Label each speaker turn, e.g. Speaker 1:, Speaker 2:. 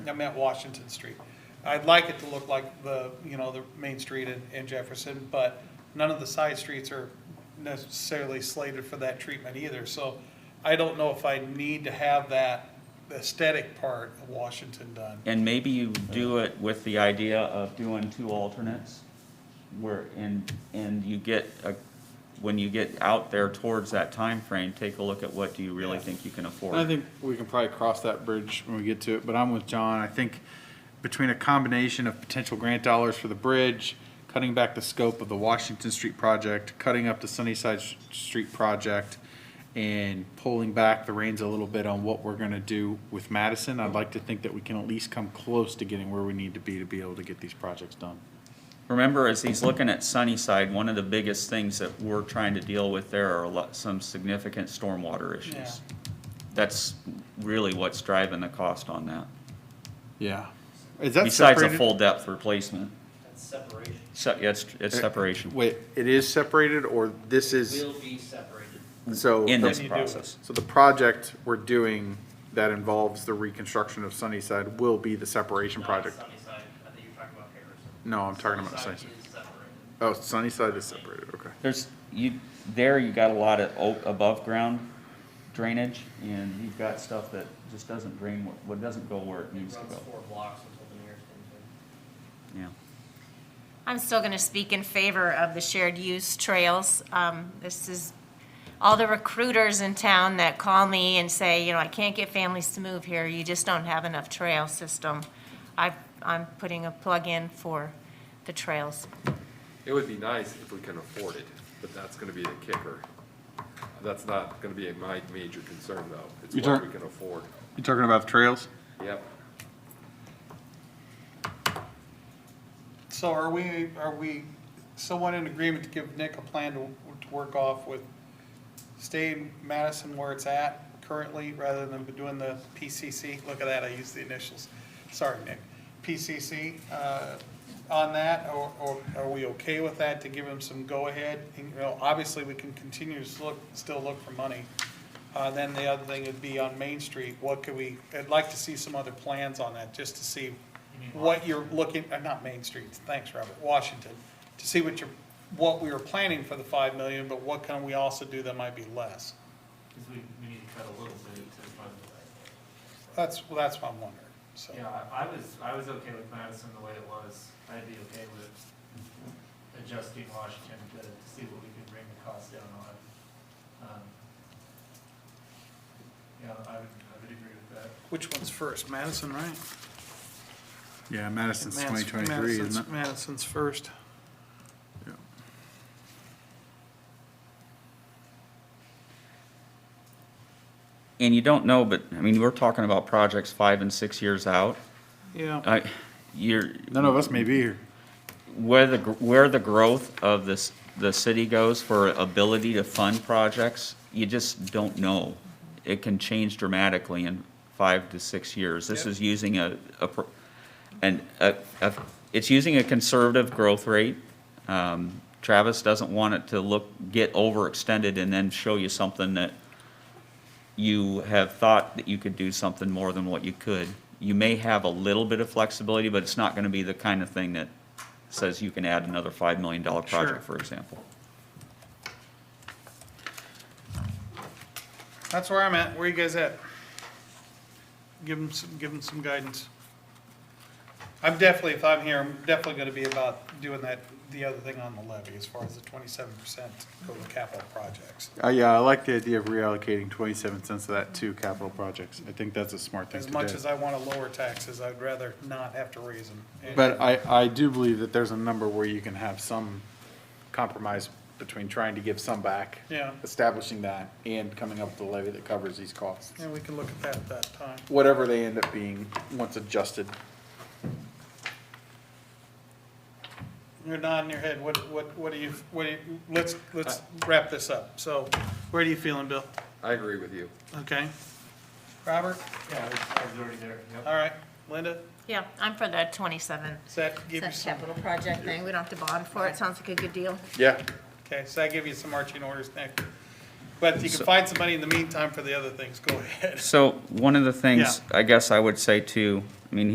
Speaker 1: I meant Washington Street. I'd like it to look like the, you know, the main street in, in Jefferson, but none of the side streets are necessarily slated for that treatment either, so I don't know if I need to have that aesthetic part of Washington done.
Speaker 2: And maybe you do it with the idea of doing two alternates, where, and, and you get, a- when you get out there towards that time frame, take a look at what do you really think you can afford.
Speaker 3: I think we can probably cross that bridge when we get to it, but I'm with John. I think between a combination of potential grant dollars for the bridge, cutting back the scope of the Washington Street project, cutting up the Sunnyside S- Street project, and pulling back the reins a little bit on what we're gonna do with Madison, I'd like to think that we can at least come close to getting where we need to be to be able to get these projects done.
Speaker 2: Remember, as he's looking at Sunnyside, one of the biggest things that we're trying to deal with there are a lot, some significant stormwater
Speaker 1: Yeah.
Speaker 2: issues. That's really what's driving the cost on that,
Speaker 3: Yeah. Is that
Speaker 2: besides a
Speaker 3: separated?
Speaker 2: full depth replacement.
Speaker 4: That's separation.
Speaker 2: So, yeah, it's, it's separation
Speaker 3: Uh, Wait, it is separated or this is,
Speaker 4: Will be separated.
Speaker 3: so.
Speaker 2: in
Speaker 3: the-
Speaker 2: this
Speaker 1: Then you do it.
Speaker 2: process.
Speaker 3: So the project we're doing that involves the reconstruction of Sunnyside will be the separation
Speaker 4: Not
Speaker 3: project?
Speaker 4: Sunnyside, I think you're talking about Harrison.
Speaker 3: No, I'm talking about Sunnyside.
Speaker 4: is separated.
Speaker 3: Oh, Sunnyside is separated, okay.
Speaker 2: There's, you, there you got a lot of o- above-ground drainage, and you've got stuff that just doesn't drain, wh- what doesn't go where it needs
Speaker 4: It
Speaker 2: to
Speaker 4: runs
Speaker 2: go.
Speaker 4: four blocks until the nearest engine.
Speaker 2: Yeah.
Speaker 5: I'm still going to speak in favor of the shared use trails. Um, This is, all the recruiters in town that call me and say, you know, I can't get families to move here, you just don't have enough trail system. I, I'm putting a plug in for the trails.
Speaker 6: It would be nice if we can afford it, but that's gonna be the kicker. That's not gonna be my major concern, though. It's
Speaker 3: You
Speaker 6: what
Speaker 3: turn-
Speaker 6: we can afford.
Speaker 3: You talking about trails?
Speaker 6: Yep.
Speaker 1: So are we, are we somewhat in agreement to give Nick a plan to, to work off with, stay in Madison where it's at currently, rather than doing the PCC? Look at that, I used the initials. Sorry, Nick. PCC, uh, on that, or, or are we okay with that to give him some go-ahead? And, You know, obviously, we can continue to look, still look for money. Uh, then the other thing would be on Main Street, what could we, I'd like to see some other plans on that, just to see what you're looking, uh, not Main Street, thanks, Robert, Washington, to see what you're, what we were planning for the five million, but what can we also do that might be less?
Speaker 4: Cause we, we need to cut a little bit to fund the
Speaker 1: That's, well, that's what I'm wondering, so.
Speaker 7: Yeah, Uh, I I was, I was okay with Madison the way it was. I'd be okay with adjusting Washington to to see what we can bring the cost down on. Um, Yeah, I would, I would agree with that.
Speaker 1: Which one's first, Madison, right?
Speaker 3: Yeah, Madison's twenty twenty-three, isn't it?
Speaker 1: Madison's first.
Speaker 3: Yeah.
Speaker 2: And you don't know, but, I mean, we're talking about projects five and six years out.
Speaker 1: Yeah.
Speaker 2: I, you're,
Speaker 3: None of us may be here.
Speaker 2: where the, gr- where the growth of this, the city goes for ability to fund projects, you just don't know. It can change dramatically in five to six years. This
Speaker 1: Yep.
Speaker 2: is using a, a, pro- and, uh, uh, it's using a conservative growth rate. Um, Travis doesn't want it to look, get overextended and then show you something that you have thought that you could do something more than what you could. You may have a little bit of flexibility, but it's not gonna be the kind of thing that says you can add another five million dollar
Speaker 1: Sure.
Speaker 2: project, for example.
Speaker 1: That's where I'm at, where you guys at? Give them some, give them some guidance. I'm definitely, if I'm here, I'm definitely gonna be about doing that, the other thing on the levy, as far as the twenty-seven percent go to capital projects.
Speaker 3: Uh, yeah, I like the idea of reallocating twenty-seven cents of that to capital projects. I think that's a smart thing
Speaker 1: As
Speaker 3: to do.
Speaker 1: much as I wanna lower taxes, I'd rather not have to raise them.
Speaker 3: But I, I do believe that there's a number where you can have some compromise between trying to give some back.
Speaker 1: Yeah.
Speaker 3: Establishing that and coming up with a levy that covers these costs.
Speaker 1: Yeah, we can look at that at that time.
Speaker 3: Whatever they end up being, once adjusted.
Speaker 1: You're nodding your head, what, what, what do you, what do you, let's, let's wrap this up. So, where are you feeling, Bill?
Speaker 6: I agree with you.
Speaker 1: Okay? Robert?
Speaker 7: Yeah, I was, I was already there, yep.
Speaker 1: All right. Linda?
Speaker 5: Yeah, I'm for the 27
Speaker 1: Does that give you
Speaker 5: cent
Speaker 1: some?
Speaker 5: capital project thing, we don't have to bond for it, sounds like a good deal.
Speaker 3: Yeah.
Speaker 1: Okay, so I give you some marching orders, Nick. But you can find somebody in the meantime for the other things, go ahead.
Speaker 2: So, one of the things, I guess I would say too, I mean,